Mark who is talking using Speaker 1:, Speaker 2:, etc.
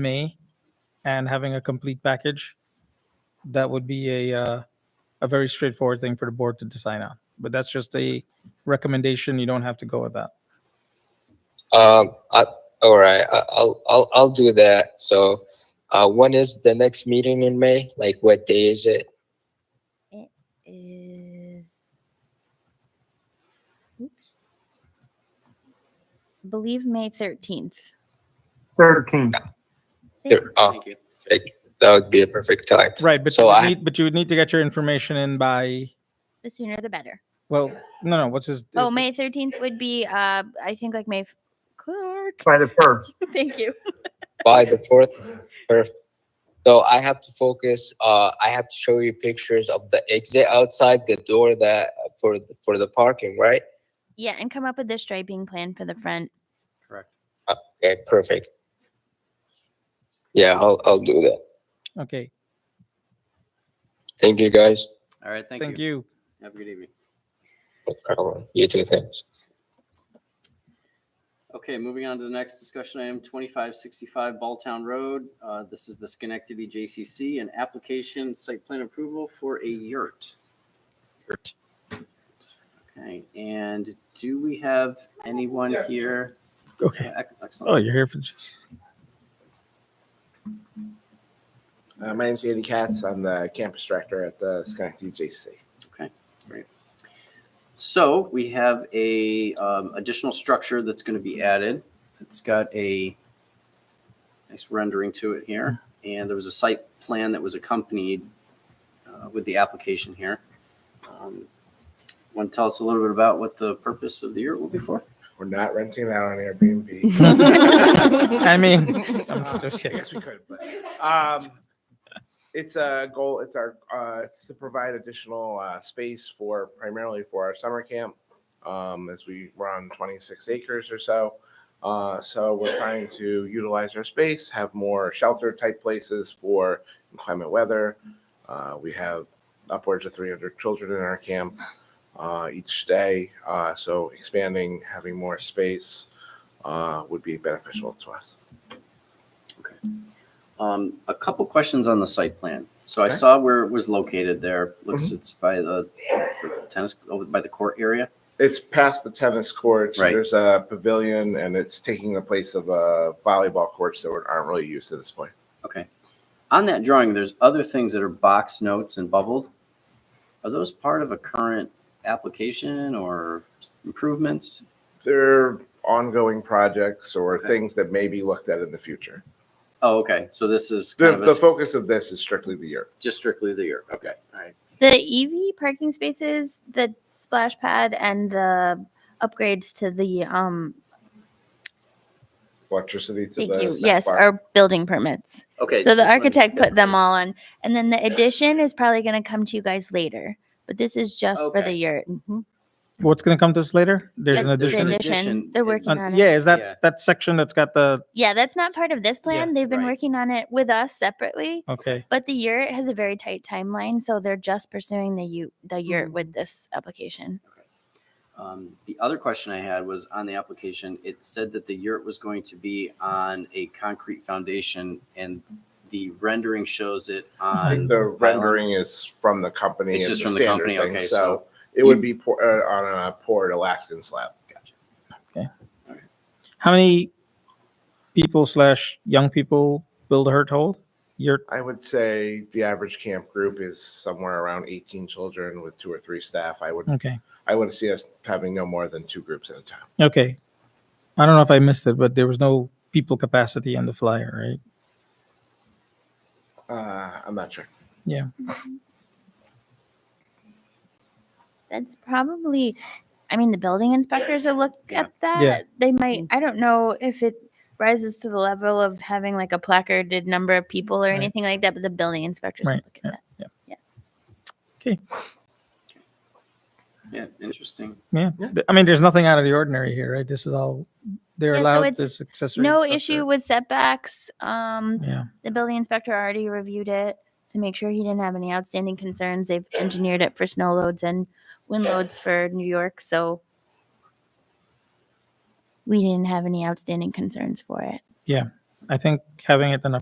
Speaker 1: May and having a complete package, that would be a, uh, a very straightforward thing for the board to decide on. But that's just a recommendation. You don't have to go with that.
Speaker 2: Um, I, all right, I, I'll, I'll, I'll do that. So, uh, when is the next meeting in May? Like, what day is it?
Speaker 3: is oops. I believe May 13th.
Speaker 4: Thirteen.
Speaker 2: There- uh,
Speaker 5: Thank you.
Speaker 2: like, that would be a perfect time.
Speaker 1: Right, but you
Speaker 2: So
Speaker 1: would
Speaker 2: I-
Speaker 1: need, but you would need to get your information in by,
Speaker 3: The sooner the better.
Speaker 1: well, no, no, what's his?
Speaker 3: Oh, May 13th would be uh I think like May f- Clark.
Speaker 4: by the first.
Speaker 3: Thank you.
Speaker 2: By the fourth, perfect. So I have to focus, uh, I have to show you pictures of the exit outside the door that, for, the- for the parking, right?
Speaker 3: Yeah, and come up with the striping plan for the front.
Speaker 5: Correct.
Speaker 2: Okay, perfect. Yeah, I'll, I'll do that.
Speaker 1: Okay,
Speaker 2: Thank you, guys.
Speaker 5: All right, thank
Speaker 1: thank
Speaker 5: you.
Speaker 1: you.
Speaker 5: Have a good evening.
Speaker 2: No problem. You too, thanks.
Speaker 5: Okay, moving on to the next discussion item, 2565 Balltown Road. Uh, This is the Schenectady JCC, an application site plan approval for a yurt. Okay, and do we have anyone here?
Speaker 1: Okay.
Speaker 5: Yeah, ec-
Speaker 1: Oh,
Speaker 5: Excellent.
Speaker 1: you're here for just,
Speaker 6: Uh, my name's Andy Katz. I'm the campus director at the Schenectady JC.
Speaker 5: So we have a um, additional structure that's going to be added. It's got a nice rendering to it here. And there was a site plan that was accompanied uh, with the application here. Um, Want to tell us a little bit about what the purpose of the year will be for?
Speaker 6: We're not renting it out on Airbnb.
Speaker 1: I mean,
Speaker 6: Uh,
Speaker 1: I'm just
Speaker 6: I
Speaker 1: kidding.
Speaker 6: guess we could, but um, it's a goal. It's our uh, it's to provide additional uh, space for primarily for our summer camp, um, as we were on 26 acres or so. Uh, so we're trying to utilize our space, have more shelter type places for inclement weather. Uh, we have upwards of 300 children in our camp uh, each day, uh, so expanding, having more space uh, would be beneficial to us.
Speaker 5: Um, A couple questions on the site plan. So I
Speaker 6: Okay.
Speaker 5: saw where it was located there. Looks it's by the it's like the tennis, over by the court area.
Speaker 6: It's past the tennis courts.
Speaker 5: Right.
Speaker 6: There's a pavilion, and it's taking the place of uh, volleyball courts that aren't really used at this point.
Speaker 5: Okay. On that drawing, there's other things that are box notes and bubbled. Are those part of a current application or improvements?
Speaker 6: They're ongoing projects or
Speaker 5: Okay.
Speaker 6: things that may be looked at in the future.
Speaker 5: Oh, okay. So this is
Speaker 6: The,
Speaker 5: kind of a
Speaker 6: the
Speaker 5: s-
Speaker 6: focus of this is strictly the year.
Speaker 5: just strictly the year. Okay. All right.
Speaker 3: The EV parking spaces, the splash pad and the upgrades to the um
Speaker 6: Electricity to
Speaker 3: thank
Speaker 6: the
Speaker 3: you.
Speaker 6: snack
Speaker 3: Yes,
Speaker 6: bar.
Speaker 3: our building permits.
Speaker 5: Okay.
Speaker 3: So
Speaker 5: just
Speaker 3: the
Speaker 5: wanted to
Speaker 3: architect
Speaker 5: get
Speaker 3: put them
Speaker 5: that.
Speaker 3: all on. And then the addition is probably going to come to you guys later. But this is just for the
Speaker 5: Okay.
Speaker 3: yurt.
Speaker 1: what's going to come to us later? There's an
Speaker 3: The- the
Speaker 1: addition.
Speaker 5: addition. Addition
Speaker 3: They're
Speaker 5: is-
Speaker 3: working
Speaker 1: Uh,
Speaker 3: on it.
Speaker 1: Yeah, is
Speaker 5: Yeah.
Speaker 1: that, that section that's got the,
Speaker 3: Yeah, that's not part of this plan. They've been
Speaker 5: right.
Speaker 3: working on it with us separately.
Speaker 1: okay,
Speaker 3: But the yurt has a very tight timeline, so they're just pursuing the u- the yurt
Speaker 5: Mm-hmm.
Speaker 3: with this application.
Speaker 5: Um, the other question I had was on the application. It said that the yurt was going to be on a concrete foundation, and the rendering shows it
Speaker 6: I think
Speaker 5: on.
Speaker 6: the rendering is from the company.
Speaker 5: It's
Speaker 6: It's
Speaker 5: just
Speaker 6: a
Speaker 5: from the
Speaker 6: standard
Speaker 5: company,
Speaker 6: thing,
Speaker 5: okay, so-
Speaker 6: so it would be pour, uh, on a poured Alaskan slab.
Speaker 1: how many people slash young people build a hurt hole? You're,
Speaker 6: I would say the average camp group is somewhere around 18 children with two or three staff. I would
Speaker 1: okay.
Speaker 6: I would see us having no more than two groups at a time.
Speaker 1: Okay. I don't know if I missed it, but there was no people capacity on the flyer, right?
Speaker 6: Uh, I'm not sure.
Speaker 3: That's probably, I mean, the building inspectors will look
Speaker 5: Yeah. Mm-hmm.
Speaker 3: at that.
Speaker 1: Yeah.
Speaker 3: They might. I don't know if it rises to the level of having like a placarded number of people or
Speaker 1: Right.
Speaker 3: anything like that. But the building inspectors will
Speaker 1: Right,
Speaker 3: look at that.
Speaker 5: Yeah, interesting.
Speaker 1: Yeah.
Speaker 6: Yeah.
Speaker 1: Th- I mean, there's nothing out of the ordinary here, right? This is all, they're
Speaker 3: Yeah, so
Speaker 1: allowed
Speaker 3: it's
Speaker 1: this accessory.
Speaker 3: No
Speaker 1: structure.
Speaker 3: issue with setbacks. Um,
Speaker 1: Yeah.
Speaker 3: The building inspector already reviewed it to make sure he didn't have any outstanding concerns. They've engineered it for snow loads and wind loads for New York, so we didn't have any outstanding concerns for it.
Speaker 1: I think having it in a